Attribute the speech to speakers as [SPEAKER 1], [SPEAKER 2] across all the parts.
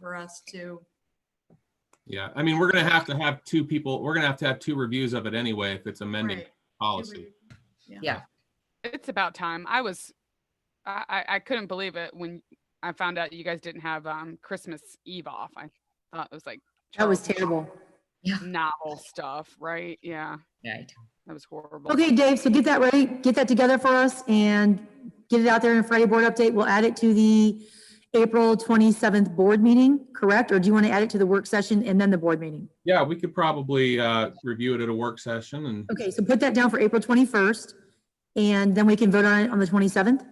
[SPEAKER 1] for us to,
[SPEAKER 2] Yeah, I mean, we're gonna have to have two people, we're gonna have to have two reviews of it anyway if it's amending
[SPEAKER 1] Right.
[SPEAKER 2] policy.
[SPEAKER 3] It's about time. I was, I, I- I couldn't believe it when I found out you guys didn't have um Christmas Eve off. I thought it was like
[SPEAKER 4] That was
[SPEAKER 3] Charles
[SPEAKER 4] terrible.
[SPEAKER 3] novel stuff, right? Yeah,
[SPEAKER 5] Right.
[SPEAKER 3] that was horrible.
[SPEAKER 4] Okay, Dave, so get that ready, get that together for us and get it out there in Friday board update. We'll add it to the April 27th board meeting, correct? Or do you want to add it to the work session and then the board meeting?
[SPEAKER 2] Yeah, we could probably uh, review it at a work session and,
[SPEAKER 4] Okay, so put that down for April 21st and then we can vote on it on the 27th? Does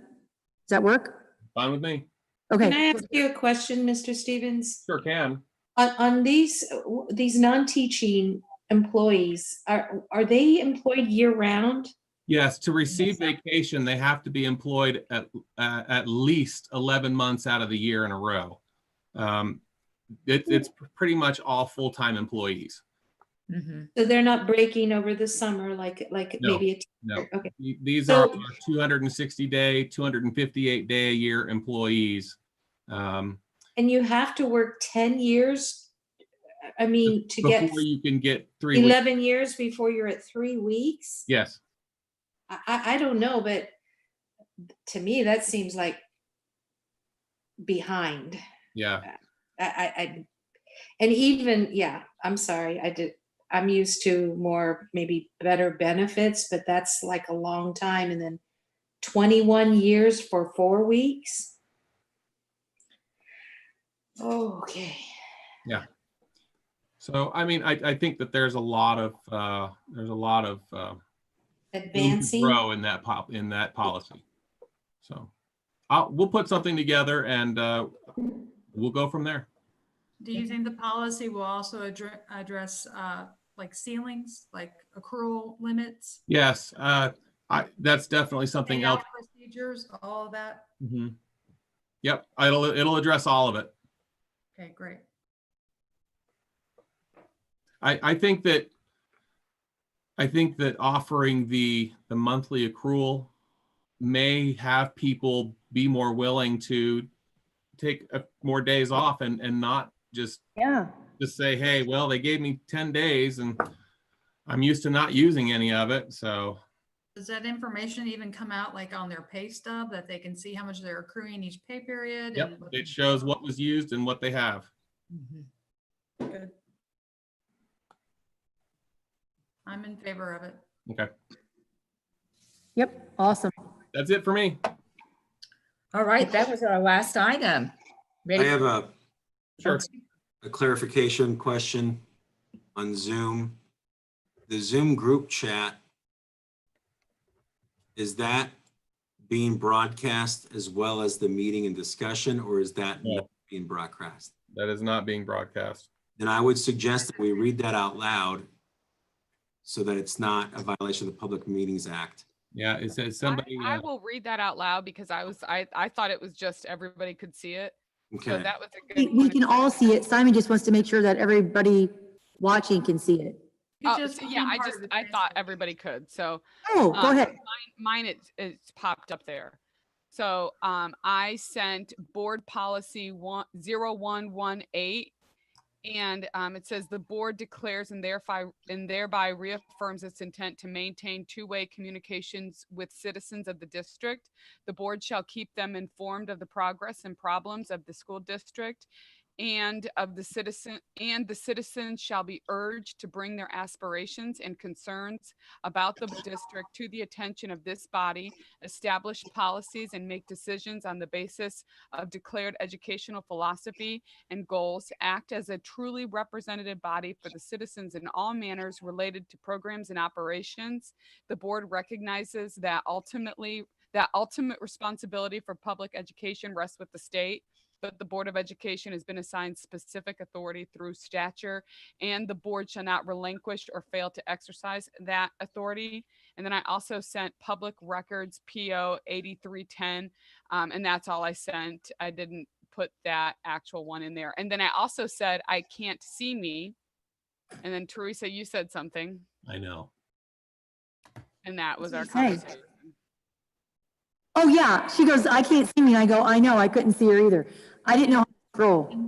[SPEAKER 4] that work?
[SPEAKER 2] fine with me,
[SPEAKER 4] Okay.
[SPEAKER 5] Can I ask you a question, Mr. Stevens?
[SPEAKER 2] sure can.
[SPEAKER 5] On, on these, these non-teaching employees, are, are they employed year-round?
[SPEAKER 2] Yes, to receive vacation, they have to be employed at, uh, at least 11 months out of the year in a row. Um,
[SPEAKER 5] Hmm.
[SPEAKER 2] it- It's pretty much all full-time employees.
[SPEAKER 6] Mm-hmm.
[SPEAKER 5] So they're not breaking over the summer like, like
[SPEAKER 2] No,
[SPEAKER 5] maybe a
[SPEAKER 2] no.
[SPEAKER 5] teacher? Okay,
[SPEAKER 2] These are
[SPEAKER 5] So-
[SPEAKER 2] 260-day, 258-day-a-year employees. Um,
[SPEAKER 5] and you have to work ten years? I mean, to get
[SPEAKER 2] Before you can get three weeks.
[SPEAKER 5] eleven years before you're at three weeks?
[SPEAKER 2] Yes,
[SPEAKER 5] I, I, I don't know, but to me, that seems like behind.
[SPEAKER 2] yeah.
[SPEAKER 5] I, I, I, and even, yeah, I'm sorry, I did, I'm used to more, maybe better benefits, but that's like a long time, and then twenty-one years for four weeks? Okay,
[SPEAKER 2] So, I mean, I, I think that there's a lot of, uh, there's a lot of, uh, room to
[SPEAKER 5] advancing,
[SPEAKER 2] grow in that pop, in that policy. So, I'll, we'll put something together and, uh, we'll go from there.
[SPEAKER 1] do you think the policy will also address, address, uh, like ceilings, like accrual limits?
[SPEAKER 2] Yes, uh, I, that's definitely something
[SPEAKER 1] payout
[SPEAKER 2] else.
[SPEAKER 1] Procedures, all of that?
[SPEAKER 2] Mhm. Yep, it'll, it'll address all of it.
[SPEAKER 1] Okay, great.
[SPEAKER 2] I, I think that, I think that offering the, the monthly accrual may have people be more willing to take uh, more days off and, and not just,
[SPEAKER 4] Yeah.
[SPEAKER 2] just say, hey, well, they gave me 10 days and I'm used to not using any of it, so,
[SPEAKER 1] Does that information even come out like on their pay stub that they can see how much they're accruing each pay period?
[SPEAKER 2] yep,
[SPEAKER 1] and what-
[SPEAKER 2] it shows what was used and what they have.
[SPEAKER 6] Mm-hmm.
[SPEAKER 1] Good. I'm in favor of it.
[SPEAKER 2] Okay,
[SPEAKER 4] Yep, awesome.
[SPEAKER 2] that's it for me.
[SPEAKER 6] All right, that was our last item.
[SPEAKER 7] I
[SPEAKER 6] Ready?
[SPEAKER 7] have a,
[SPEAKER 2] Sure.
[SPEAKER 7] a clarification question on Zoom. The Zoom group chat, is that being broadcast as well as the meeting and discussion, or is that
[SPEAKER 2] No.
[SPEAKER 7] not being broadcast?
[SPEAKER 2] That is not being broadcast.
[SPEAKER 7] Then I would suggest that we read that out loud so that it's not a violation of the Public Meetings Act.
[SPEAKER 2] Yeah, it says
[SPEAKER 3] I,
[SPEAKER 2] somebody.
[SPEAKER 3] I
[SPEAKER 2] uh,
[SPEAKER 3] will read that out loud because I was, I, I thought it was just everybody could see it. So
[SPEAKER 7] Okay,
[SPEAKER 3] that was a
[SPEAKER 4] We
[SPEAKER 3] good.
[SPEAKER 4] we can all see it. Simon just wants to make sure that everybody watching can see it.
[SPEAKER 1] You
[SPEAKER 3] Oh,
[SPEAKER 1] just
[SPEAKER 3] so yeah,
[SPEAKER 1] became
[SPEAKER 3] I
[SPEAKER 1] part of
[SPEAKER 3] just,
[SPEAKER 1] the
[SPEAKER 3] I thought
[SPEAKER 1] transcript.
[SPEAKER 3] everybody could. So
[SPEAKER 4] Oh,
[SPEAKER 5] Uh,
[SPEAKER 4] go
[SPEAKER 3] Um,
[SPEAKER 4] ahead.
[SPEAKER 3] mine it's it's popped up there so um i sent board policy one zero one one eight and um, it says the board declares and thereby and thereby reaffirms its intent to maintain two-way communications with citizens of the district the board shall keep them informed of the progress and problems of the school district and of the citizen and the citizens shall be urged to bring their aspirations and concerns about the district to the attention of this body, establish policies and make decisions on the basis of declared educational philosophy and goals, act as a truly representative body for the citizens in all manners related to programs and operations. The board recognizes that ultimately, that ultimate responsibility for public education rests with the state, but the Board of Education has been assigned specific authority through stature and the board shall not relinquish or fail to exercise that authority. And then I also sent Public Records PO 8310, um, and that's all I sent. I didn't put that actual one in there. And then I also said, I can't see me. And then Teresa, you said something,
[SPEAKER 2] I know.
[SPEAKER 3] and that was our
[SPEAKER 4] did you say?
[SPEAKER 3] conversation.
[SPEAKER 4] Oh, yeah. She goes, I can't see me. I go, I know, I couldn't see her either. I didn't know how to scroll.